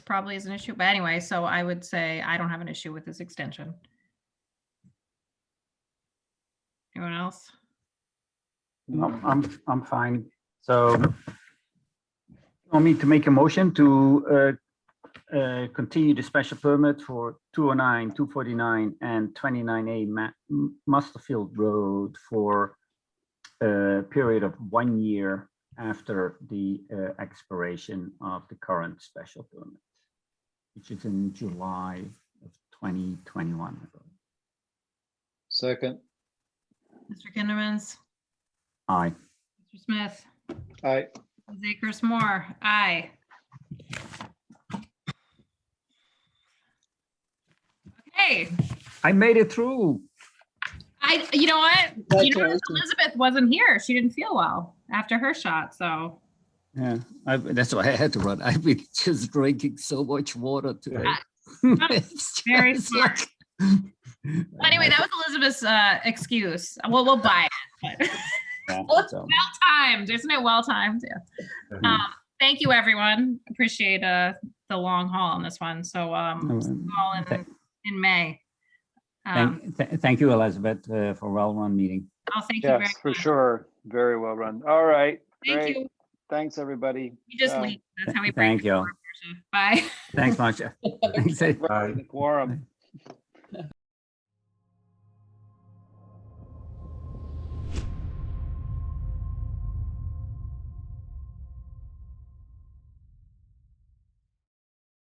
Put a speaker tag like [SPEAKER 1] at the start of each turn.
[SPEAKER 1] probably is an issue, but anyway, so I would say I don't have an issue with this extension. Anyone else?
[SPEAKER 2] I'm, I'm, I'm fine. So I need to make a motion to uh, uh, continue the special permit for 209, 249 and 29A Ma- M- Masterfield Road for a period of one year after the uh, expiration of the current special permit, which is in July of 2021.
[SPEAKER 3] Second,
[SPEAKER 1] Mr. Kindermans,
[SPEAKER 2] Aye.
[SPEAKER 1] Mr. Smith,
[SPEAKER 3] aye,
[SPEAKER 1] Ms. Akers Moore, aye. Okay,
[SPEAKER 2] I made it through.
[SPEAKER 1] I, you know what? You know, Elizabeth wasn't here. She didn't feel well after her shot, so.
[SPEAKER 2] Yeah, I, that's why I had to run. I've been just drinking so much water today. It's
[SPEAKER 1] Very
[SPEAKER 2] just
[SPEAKER 1] smart.
[SPEAKER 2] like-
[SPEAKER 1] Well, Anyway, that was Elizabeth's uh, excuse. Well, we'll buy it. but-
[SPEAKER 2] Yeah,
[SPEAKER 1] Well,
[SPEAKER 2] so,
[SPEAKER 1] well timed, isn't it? Well timed. Yeah.
[SPEAKER 2] mhm.
[SPEAKER 1] Um, thank you, everyone. Appreciate uh, the long haul on this one. So um,
[SPEAKER 2] Oh, um,
[SPEAKER 1] all in,
[SPEAKER 2] thank-
[SPEAKER 1] in May. Um,
[SPEAKER 2] Thank, th- thank you, Elizabeth, uh, for well-run meeting.
[SPEAKER 1] I'll thank you very
[SPEAKER 3] yes,
[SPEAKER 1] much.
[SPEAKER 3] for sure. Very well run. All right,
[SPEAKER 1] Thank
[SPEAKER 3] great.
[SPEAKER 1] you.
[SPEAKER 3] Thanks, everybody.
[SPEAKER 1] You just
[SPEAKER 3] Um,
[SPEAKER 1] leave. That's how we break.
[SPEAKER 2] Thank you.
[SPEAKER 1] Bye.
[SPEAKER 2] Thanks, Marcia. Thanks, eh,
[SPEAKER 3] Right, the Quorum.